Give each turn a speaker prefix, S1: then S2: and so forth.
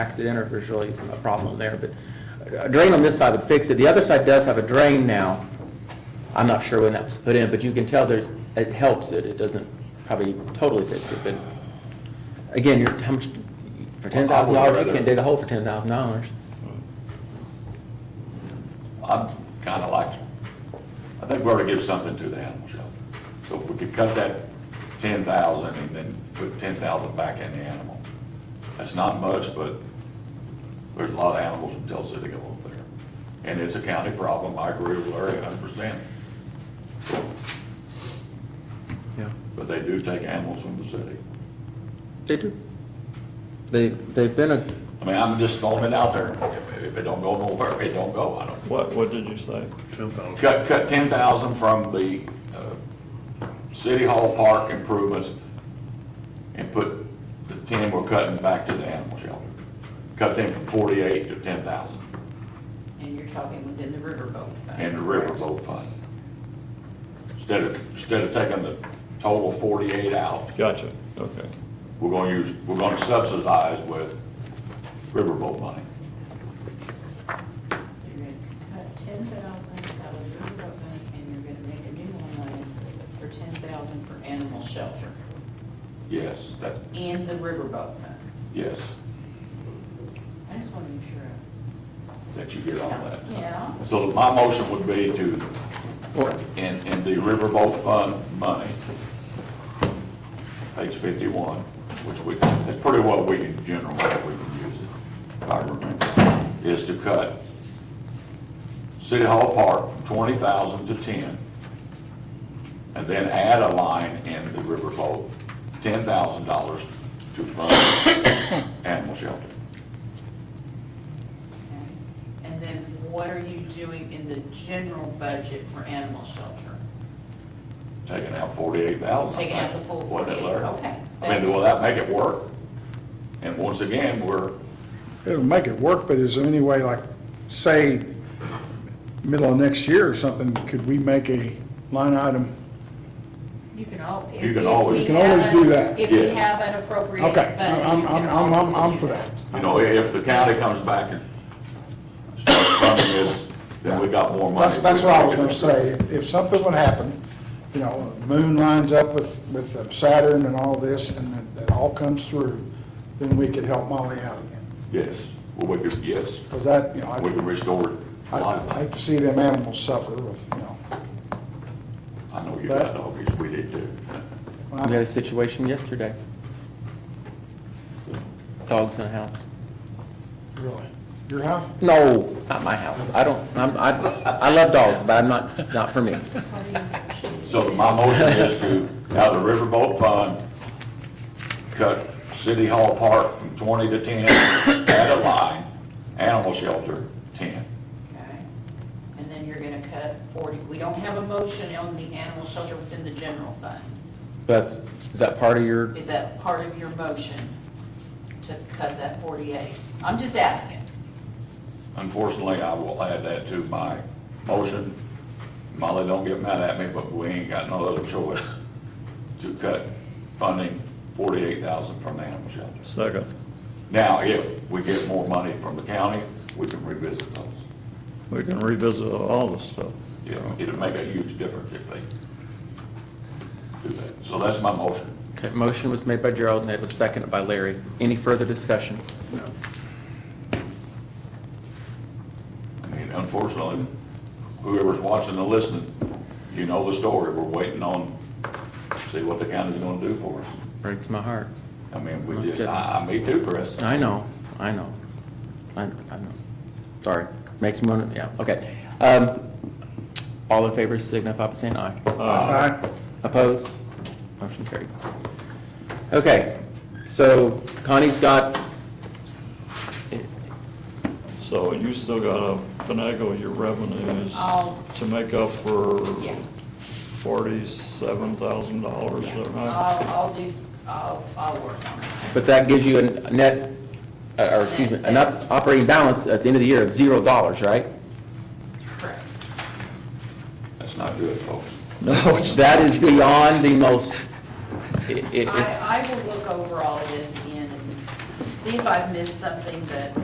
S1: accident or if there's really a problem there, but a drain on this side would fix it. The other side does have a drain now. I'm not sure when that was put in, but you can tell there's, it helps it. It doesn't probably totally fix it, but again, you're, how much, for ten thousand dollars, you can't dig a hole for ten thousand dollars.
S2: I'm kind of like, I think we ought to give something to the animal shelter. So if we could cut that ten thousand and then put ten thousand back in the animal, that's not much, but there's a lot of animals in Tell City over there. And it's a county problem, I agree with Larry a hundred percent,
S1: Yeah,
S2: but they do take animals from the city.
S1: they do. They, they've been a,
S2: I mean, I'm just throwing it out there, if, if it don't go nowhere, it don't go, I don't.
S3: What, what did you say?
S2: Cut, cut ten thousand from the, uh, city hall park improvements and put the ten we're cutting back to the animal shelter. Cut them from forty-eight to ten thousand
S4: And you're talking within the riverboat fund.
S2: and the riverboat fund. Instead of, instead of taking the total forty-eight out,
S3: Gotcha, okay.
S2: we're gonna use, we're gonna subsidize with riverboat money.
S4: You're gonna cut ten thousand out of the riverboat fund, and you're gonna make a new one line for ten thousand for animal shelter
S2: Yes, that,
S4: and the riverboat fund.
S2: yes,
S4: I just wanna make sure.
S2: that you get all that.
S4: Yeah,
S2: So my motion would be to,
S1: Well-
S2: in, in the riverboat fund money, page fifty-one, which we, that's pretty well we can, general, way we can use it, if I remember, is to cut City Hall Park from twenty thousand to ten, and then add a line in the riverboat, ten thousand dollars to fund animal shelter.
S4: okay. And then what are you doing in the general budget for animal shelter?
S2: Taking out forty-eight thousand.
S4: Taking out the full forty-eight, okay.
S2: I mean,
S4: that's-
S2: will that make it work? And once again, we're,
S5: It'll make it work, but is there any way, like, say, middle of next year or something, could we make a line item?
S4: You can al- if-
S2: You can
S4: if
S2: always-
S4: we
S2: You
S5: can always
S4: have
S5: do
S4: an-
S5: that.
S4: If we
S2: Yes.
S4: have an appropriate
S5: Okay,
S4: fund.
S5: I'm,
S4: you
S5: I'm,
S4: can
S5: I'm, I'm,
S4: always
S5: I'm
S4: do
S5: for that.
S2: you know, if the county comes back and starts funding this, then we got more money.
S5: That's, that's what I was gonna say, If- if something would happen, you know, the moon lines up with, with the Saturn and all this, and it- it all comes through, then we could help Molly out again,
S2: Yes, well, we could, yes,
S5: because that, you know,
S2: we can
S5: I,
S2: restore a
S5: I
S2: lot of
S5: I
S2: that.
S5: hate to see them animals suffer, you know.
S2: I know you got doggies, we did too.
S5: Well,
S1: we had a situation yesterday,
S2: So,
S1: dogs in a house.
S5: Really, your house?
S1: No, not my house. I don't, I'm, I, I love dogs, but I'm not, not for me.
S2: So my motion is to, out of the riverboat fund, cut City Hall Park from twenty to ten, add a line, animal shelter, ten.
S4: Okay, and then you're gonna cut forty, we don't have a motion on the animal shelter within the general fund.
S1: That's, is that part of your,
S4: Is that part of your motion to cut that forty-eight? I'm just asking.
S2: Unfortunately, I will add that to my motion. Molly, don't get mad at me, but we ain't got no other choice to cut funding forty-eight thousand from the animal shelters.
S3: Second.
S2: Now, if we get more money from the county, we can revisit those.
S3: We can revisit all this stuff.
S2: You know, it'd make a huge difference if they do that. So that's my motion.
S1: okay, motion was made by Gerald and it was seconded by Larry. Any further discussion?
S2: I mean, unfortunately, whoever's watching and listening, you know the story. We're waiting on, see what the county's gonna do for us.
S1: Breaks my heart.
S2: I mean, we just, I, I, me too, Chris.
S1: I know, I know. I, I know. Sorry, makes me want to, yeah, okay. Um, all in favor signify by saying aye.
S5: Aye.
S1: Opposed? Motion carried. Okay, so Connie's got,
S3: So you still gotta finagle your revenues
S4: I'll-
S3: to make up for
S4: Yeah.
S3: forty-seven thousand dollars,
S4: Yeah, Uh,
S3: is that right?
S4: I'll, I'll do, s- I'll, I'll work on it.
S1: but that gives you a net, uh, or excuse me, an op- operating balance at the end of the year of zero dollars, right?
S4: Correct.
S2: That's not good, folks.
S1: No. That is beyond the most, i- i-
S4: I, I will look over all of this again and see if I've missed something that